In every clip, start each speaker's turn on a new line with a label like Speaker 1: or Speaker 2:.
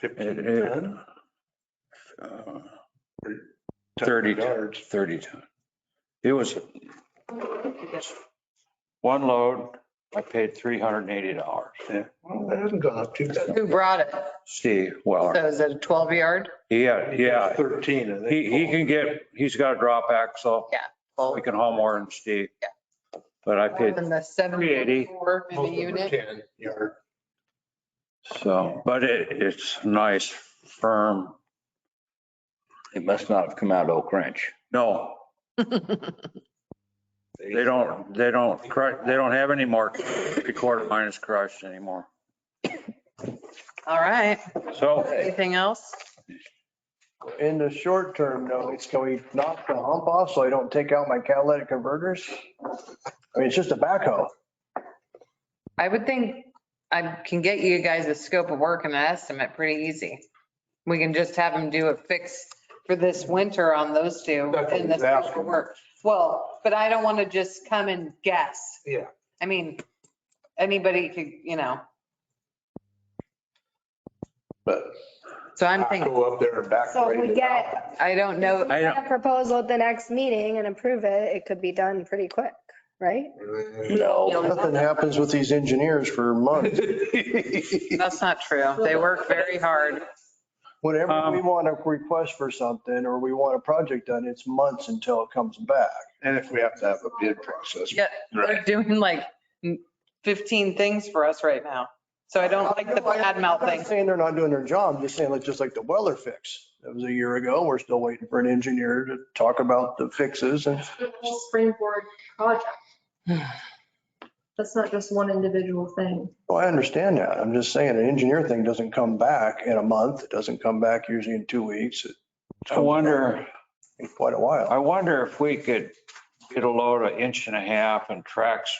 Speaker 1: Fifteen,
Speaker 2: It- it-
Speaker 1: ten?
Speaker 2: uh,
Speaker 1: Ten
Speaker 2: 30
Speaker 1: yards.
Speaker 2: 30 ton. It was one load, I paid $380.
Speaker 1: Well, that hasn't gone up too bad.
Speaker 3: Who brought it?
Speaker 2: Steve Weller,
Speaker 3: So is it a 12 yard?
Speaker 2: yeah, yeah,
Speaker 1: Thirteen, I think.
Speaker 2: he, he can get, he's got a drop axle,
Speaker 3: Well,
Speaker 2: we can haul more than Steve.
Speaker 3: Yeah.
Speaker 2: But I
Speaker 3: More
Speaker 2: paid,
Speaker 3: than the 74 in the unit?
Speaker 1: Ten yard.
Speaker 2: so, uh, but it, it's nice, firm,
Speaker 4: It must not have come out of Oak Ranch.
Speaker 2: no, they don't, they don't, cru- they don't have any more three quarter minus crush anymore.
Speaker 3: All right.
Speaker 2: So,
Speaker 3: Anything else?
Speaker 5: In the short term, no, it's can we knock the hump off so I don't take out my catalytic converters? I mean, it's just a backhoe.
Speaker 3: I would think I can get you guys a scope of work and an estimate pretty easy. We can just have them do a fix for this winter on those two
Speaker 1: That's what
Speaker 3: and the
Speaker 1: he's asking.
Speaker 3: scope of work. Well, but I don't want to just come and guess.
Speaker 1: Yeah.
Speaker 3: I mean, anybody could, you know,
Speaker 1: But
Speaker 3: so I'm
Speaker 1: I
Speaker 3: thinking,
Speaker 1: go up there and back.
Speaker 6: So if
Speaker 1: grade
Speaker 6: we
Speaker 1: it out.
Speaker 6: get
Speaker 3: I don't know.
Speaker 2: I
Speaker 6: a proposal at the next meeting and approve it, it could be done pretty quick, right?
Speaker 4: No.
Speaker 5: Nothing happens with these engineers for months.
Speaker 3: That's not true. They work very hard.
Speaker 5: Whenever we
Speaker 2: Um,
Speaker 5: want a request for something or we want a project done, it's months until it comes back.
Speaker 1: And if we have to have a bid process.
Speaker 3: Yeah, they're doing like 15 things for us right now. So I don't like the bad mouth
Speaker 5: I'm not
Speaker 3: thing.
Speaker 5: Saying they're not doing their job, I'm just saying, like, just like the Weller fix. That was a year ago. We're still waiting for an engineer to talk about the fixes and
Speaker 7: the whole springboard project. That's not just one individual thing.
Speaker 5: Well, Oh, I understand that. I'm just saying an engineer thing doesn't come back in a month. It doesn't come back usually in two weeks. It
Speaker 2: I wonder.
Speaker 5: takes quite a while.
Speaker 2: I wonder if we could get a load of inch and a half and tracks,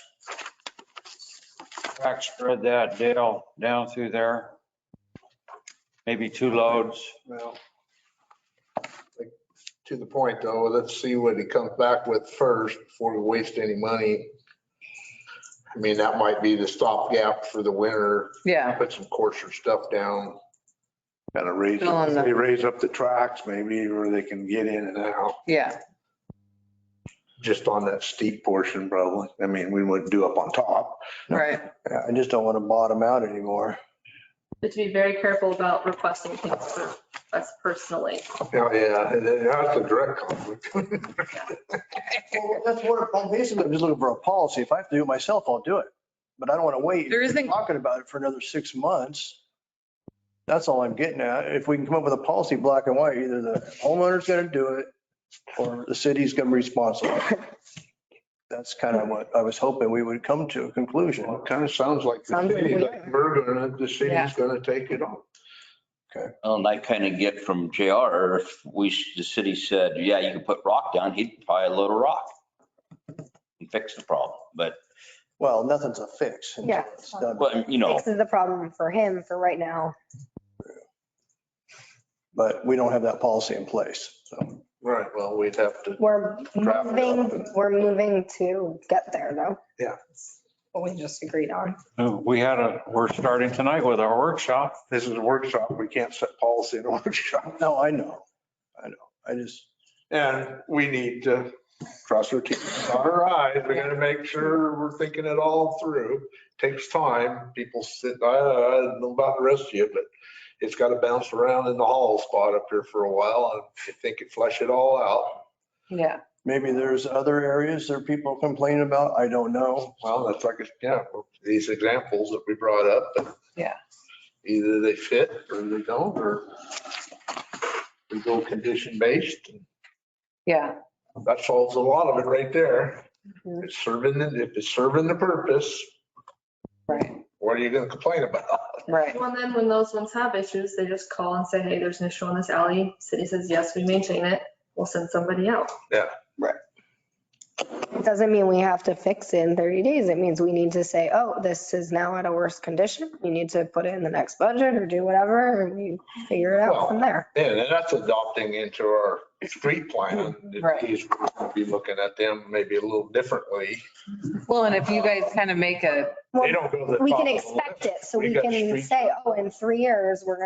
Speaker 2: track spread that deal down through there. Maybe two loads.
Speaker 1: Well, like, To the point though, let's see what he comes back with first before we waste any money. I mean, that might be the stopgap for the winter,
Speaker 3: Yeah.
Speaker 1: put some coarser stuff down. Kind of raise,
Speaker 3: Fill in the-
Speaker 1: they raise up the tracks maybe, where they can get in and out,
Speaker 3: Yeah,
Speaker 1: just on that steep portion probably. I mean, we wouldn't do up on top.
Speaker 3: right.
Speaker 5: Yeah, I just don't want to bottom out anymore.
Speaker 7: But to be very careful about requesting things for us personally.
Speaker 1: Oh, yeah, and then that's a direct conflict.
Speaker 5: Well, That's what, I'm basically, I'm just looking for a policy. If I have to do it myself, I'll do it. But I don't want to wait.
Speaker 3: There isn't-
Speaker 5: Talking about it for another six months. That's all I'm getting at. If we can come up with a policy, black and white, either the homeowner's going to do it or the city's going to be responsible. That's kind of what I was hoping we would come to a conclusion.
Speaker 1: Well, it Kind of sounds like the
Speaker 6: Sounds like
Speaker 1: city,
Speaker 6: we
Speaker 1: like
Speaker 6: are.
Speaker 1: we're gonna, the
Speaker 3: Yeah.
Speaker 1: city's gonna take it on.
Speaker 4: And I kind of get from JR, if we, the city said, yeah, you can put rock down, he'd probably load a rock and fix the problem. But,
Speaker 5: Well, nothing's a fix. until
Speaker 6: Yeah.
Speaker 5: it's done.
Speaker 4: but, you know,
Speaker 6: This is the problem for him for right now.
Speaker 5: But we don't have that policy in place. So
Speaker 1: Right, well, we'd have to.
Speaker 6: We're
Speaker 1: Draft it up
Speaker 6: moving,
Speaker 1: and-
Speaker 6: we're moving to get there though.
Speaker 1: Yeah.
Speaker 6: What we just agreed on.
Speaker 2: We had a, we're starting tonight with our workshop.
Speaker 1: This is a workshop. We can't set policy in a workshop.
Speaker 5: no, I know. I know. I just,
Speaker 1: And we need to cross our T's, dot our I's. We gotta make sure we're thinking it all through. Takes time. People sit, I I don't know about the rest of you, but it's gotta bounce around in the hall spot up here for a while. and I think it flush it all out.
Speaker 3: Yeah.
Speaker 5: maybe there's other areas that people complain about. I don't know.
Speaker 1: Well, that's like, yeah, these examples that we brought up. but
Speaker 3: Yeah.
Speaker 1: Either they fit or they don't, or we go condition based.
Speaker 3: Yeah.
Speaker 1: That solves a lot of it right there.
Speaker 6: Mhm.
Speaker 1: It's serving, the- if it's serving the purpose,
Speaker 3: Right.
Speaker 1: what are you gonna complain about?
Speaker 3: Right.
Speaker 7: Well, and then when those ones have issues, they just call and say, hey, there's an issue on this alley. City says, yes, we maintain it. We'll send somebody out.
Speaker 6: It doesn't mean we have to fix it in 30 days. It means we need to say, oh, this is now at a worse condition. You need to put it in the next budget or do whatever and we figure it out from there.
Speaker 1: Yeah, and that's adopting into our street plan.
Speaker 3: Right.
Speaker 1: He's gonna Be looking at them maybe a little differently.
Speaker 3: Well, and if you guys kind of make a
Speaker 1: They don't go to the
Speaker 6: We
Speaker 1: top of
Speaker 6: can
Speaker 1: the
Speaker 6: expect
Speaker 1: list.
Speaker 6: it, so
Speaker 1: We
Speaker 6: we
Speaker 1: got street
Speaker 6: can say, oh, in three years, we're gonna